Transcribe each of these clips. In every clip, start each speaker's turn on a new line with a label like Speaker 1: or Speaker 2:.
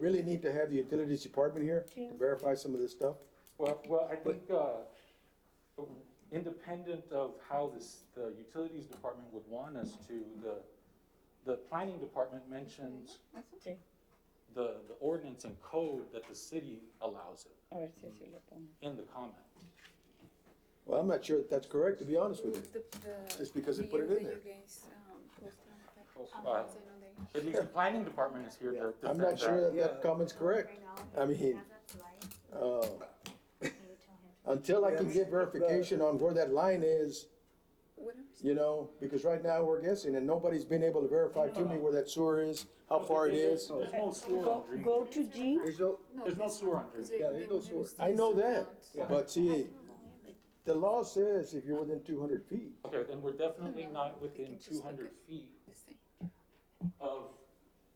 Speaker 1: really need to have the utilities department here
Speaker 2: Yeah.
Speaker 1: to verify some of this stuff.
Speaker 3: Well, well, I think, uh, independent of how this, the utilities department would want us to, the, the planning department mentions
Speaker 2: Sí,
Speaker 3: the, the ordinance and code that the city allows it
Speaker 2: a ver si así lo pongo.
Speaker 3: in the comment.
Speaker 1: Well, I'm not sure that that's correct, to be honest with you.
Speaker 4: The- the-
Speaker 1: Just because they
Speaker 4: the
Speaker 1: put it in
Speaker 4: video
Speaker 1: there.
Speaker 4: games, um, was on the-
Speaker 3: Uh,
Speaker 4: um, was on the-
Speaker 3: At least the planning department is here to defend that.
Speaker 1: I'm not sure that that comment's correct. I mean, Uh, Until I can get verification on where that line is,
Speaker 4: whatever.
Speaker 1: you know, because right now we're guessing and nobody's been able to verify to me where that sewer is, how far it is.
Speaker 3: There's no sewer
Speaker 2: Go,
Speaker 3: on Green.
Speaker 2: go to G,
Speaker 5: There's no,
Speaker 3: There's no sewer on Green.
Speaker 4: they-
Speaker 5: Yeah, they
Speaker 4: they
Speaker 5: go
Speaker 4: wanna
Speaker 5: source.
Speaker 4: still
Speaker 1: I know
Speaker 4: sell
Speaker 1: that,
Speaker 4: out.
Speaker 1: but see, the law says if you're within two hundred feet,
Speaker 3: Okay, then we're definitely not within two hundred feet
Speaker 4: This thing.
Speaker 3: of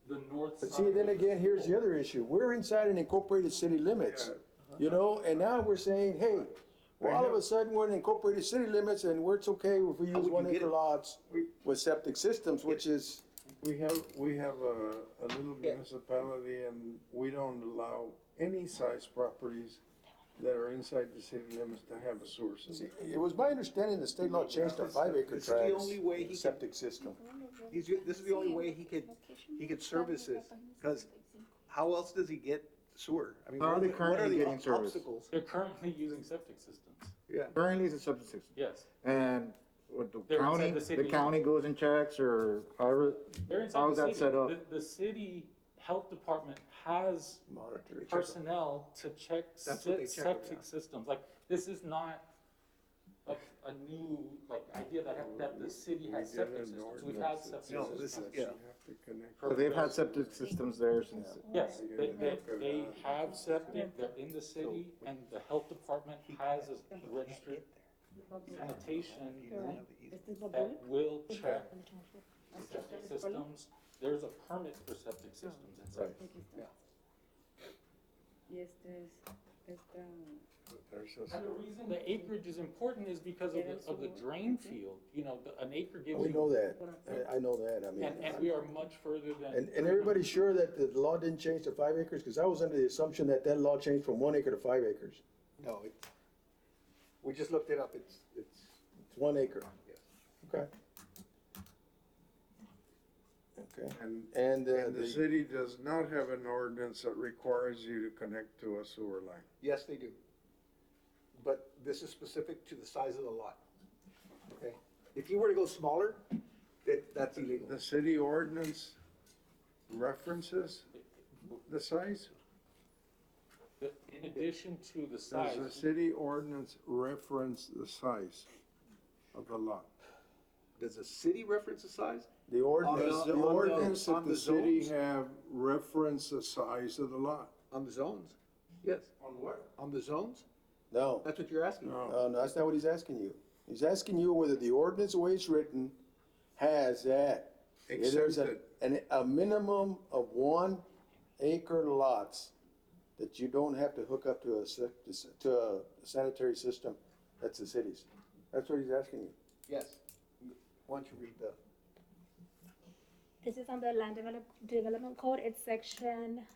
Speaker 3: the north side.
Speaker 1: But see, then
Speaker 3: of the
Speaker 1: again, here's the
Speaker 3: school.
Speaker 1: other issue. We're inside an incorporated city limits, you know, and now we're saying, hey, well, all of a sudden, we're in incorporated city limits and we're, it's okay if we
Speaker 5: How
Speaker 1: use
Speaker 5: would you
Speaker 1: one
Speaker 5: get
Speaker 1: acre
Speaker 5: it?
Speaker 1: lots with septic systems, which is,
Speaker 6: We have, we have a, a little
Speaker 5: Yeah.
Speaker 6: municipality and we don't allow any size properties that are inside the city limits to have a sewer
Speaker 1: see,
Speaker 6: system.
Speaker 1: it was my understanding the state law changed to five acre
Speaker 5: This is the
Speaker 1: tracts,
Speaker 5: only way he
Speaker 1: with
Speaker 5: can-
Speaker 1: septic system.
Speaker 5: he's, this is the only way he could, he could service this, because how else does he get sewer? I mean,
Speaker 7: How are they
Speaker 5: what
Speaker 7: currently
Speaker 5: the
Speaker 7: getting service?
Speaker 5: obstacles?
Speaker 3: They're currently using septic systems,
Speaker 5: Yeah,
Speaker 7: Currently, it's a substitute,
Speaker 3: yes.
Speaker 7: and with the
Speaker 3: They're inside
Speaker 7: county,
Speaker 3: the city.
Speaker 7: the county goes and checks, or however,
Speaker 3: They're inside
Speaker 7: How
Speaker 3: the
Speaker 7: is that
Speaker 3: city.
Speaker 7: set up?
Speaker 3: The, the city health department has
Speaker 1: Monitor.
Speaker 3: personnel to check
Speaker 5: That's what they
Speaker 3: se-
Speaker 5: check over
Speaker 3: septic
Speaker 5: there.
Speaker 3: systems. Like, this is not a, a new, like, idea that, that the city has
Speaker 6: We
Speaker 3: septic systems. We've had
Speaker 6: did an ordinance
Speaker 3: septic
Speaker 6: that
Speaker 5: No,
Speaker 3: systems.
Speaker 5: this is-
Speaker 6: says you
Speaker 5: yeah.
Speaker 6: have to connect.
Speaker 7: so they've had septic systems there since.
Speaker 3: Yes, they, they,
Speaker 6: Yeah.
Speaker 3: they have septic, they're in the city, and the health department has a registered
Speaker 5: You don't
Speaker 3: sanitation
Speaker 5: have the easy-
Speaker 2: este es la
Speaker 3: that
Speaker 2: buena.
Speaker 3: will check septic systems. There's a permit for septic systems in Sacramento.
Speaker 2: Aquí está.
Speaker 5: Ya.
Speaker 2: Y este es, esta,
Speaker 6: There's a-
Speaker 3: And the reason the acreage is important is because of the, of the drain field, you know, the- an acre gives you.
Speaker 1: We know that. I, I know that, I mean.
Speaker 3: And, and we are much further than.
Speaker 1: And, and everybody's sure that the law didn't change to five acres? Because I was under the assumption that that law changed from one acre to five acres.
Speaker 5: No, it's, we just looked it up, it's, it's,
Speaker 1: It's one acre.
Speaker 5: Yes.
Speaker 1: Okay. Okay.
Speaker 6: And,
Speaker 1: And uh,
Speaker 6: and the
Speaker 1: the,
Speaker 6: city does not have an ordinance that requires you to connect to a sewer line.
Speaker 5: yes, they do. But this is specific to the size of the lot, okay? If you were to go smaller, that, that's illegal.
Speaker 6: The city ordinance references the size?
Speaker 3: The- In addition to the
Speaker 6: Does the
Speaker 3: size,
Speaker 6: city ordinance reference the size of the lot?
Speaker 5: Does the city reference the size?
Speaker 1: the ordinance,
Speaker 6: Does the
Speaker 1: the ordinance,
Speaker 6: ordinance that
Speaker 5: on the
Speaker 6: the city
Speaker 5: zones?
Speaker 6: have reference the size of the lot?
Speaker 5: On the zones? Yes. On what? On the zones?
Speaker 1: no, Uh,
Speaker 5: That's what you're asking?
Speaker 6: No.
Speaker 1: no, no, that's not what he's asking you. He's asking you whether the ordinance, the way it's written, has that. If There's a, an,
Speaker 6: Exempted.
Speaker 1: a minimum of one acre lots that you don't have to hook up to a, se- to a sanitary system. That's the city's. That's what he's asking you.
Speaker 5: Yes. Why don't you read the,
Speaker 8: This is on the land develop, development code, it's section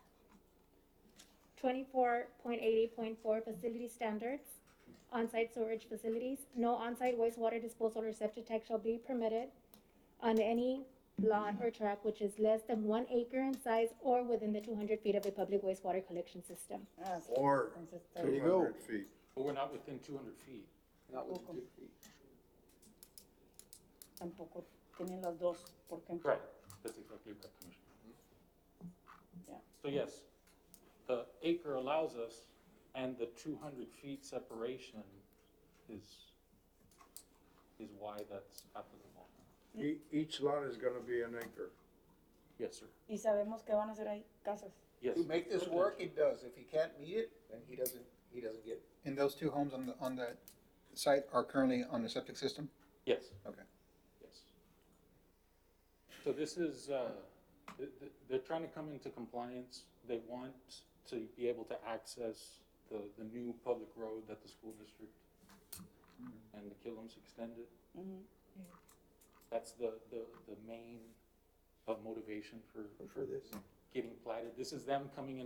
Speaker 8: twenty-four point eighty point four facility standards. On-site storage facilities, no on-site wastewater disposal or septic tank shall be permitted on any lot or tract which is less than one acre in size or within the two hundred feet of a public wastewater collection system.
Speaker 2: ah, sí,
Speaker 6: Or
Speaker 2: entonces está
Speaker 1: There you
Speaker 6: two
Speaker 1: go.
Speaker 6: hundred feet?
Speaker 3: but we're not within two hundred feet.
Speaker 5: not with the two feet.
Speaker 2: tampoco tienen las dos, porque.
Speaker 3: Correct, that's exactly right, Commissioner.
Speaker 2: Yeah.
Speaker 3: So yes, the acre allows us, and the two hundred feet separation is, is why that's applicable.
Speaker 6: E- Each lot is gonna be an acre.
Speaker 3: Yes, sir.
Speaker 2: Y sabemos que van a hacer ahí casas.
Speaker 3: Yes.
Speaker 5: To make this work, it does. If he can't meet it, then he doesn't, he doesn't get it.
Speaker 9: And those two homes on the, on the site are currently on the septic system?
Speaker 3: Yes.
Speaker 9: Okay.
Speaker 3: Yes. So this is, uh, th- th- they're trying to come into compliance. They want to be able to access the, the new public road that the school district and the Killam's extended.
Speaker 2: Ujú.
Speaker 3: That's the, the, the main uh, motivation for
Speaker 1: for this.
Speaker 3: getting platted. This is them coming in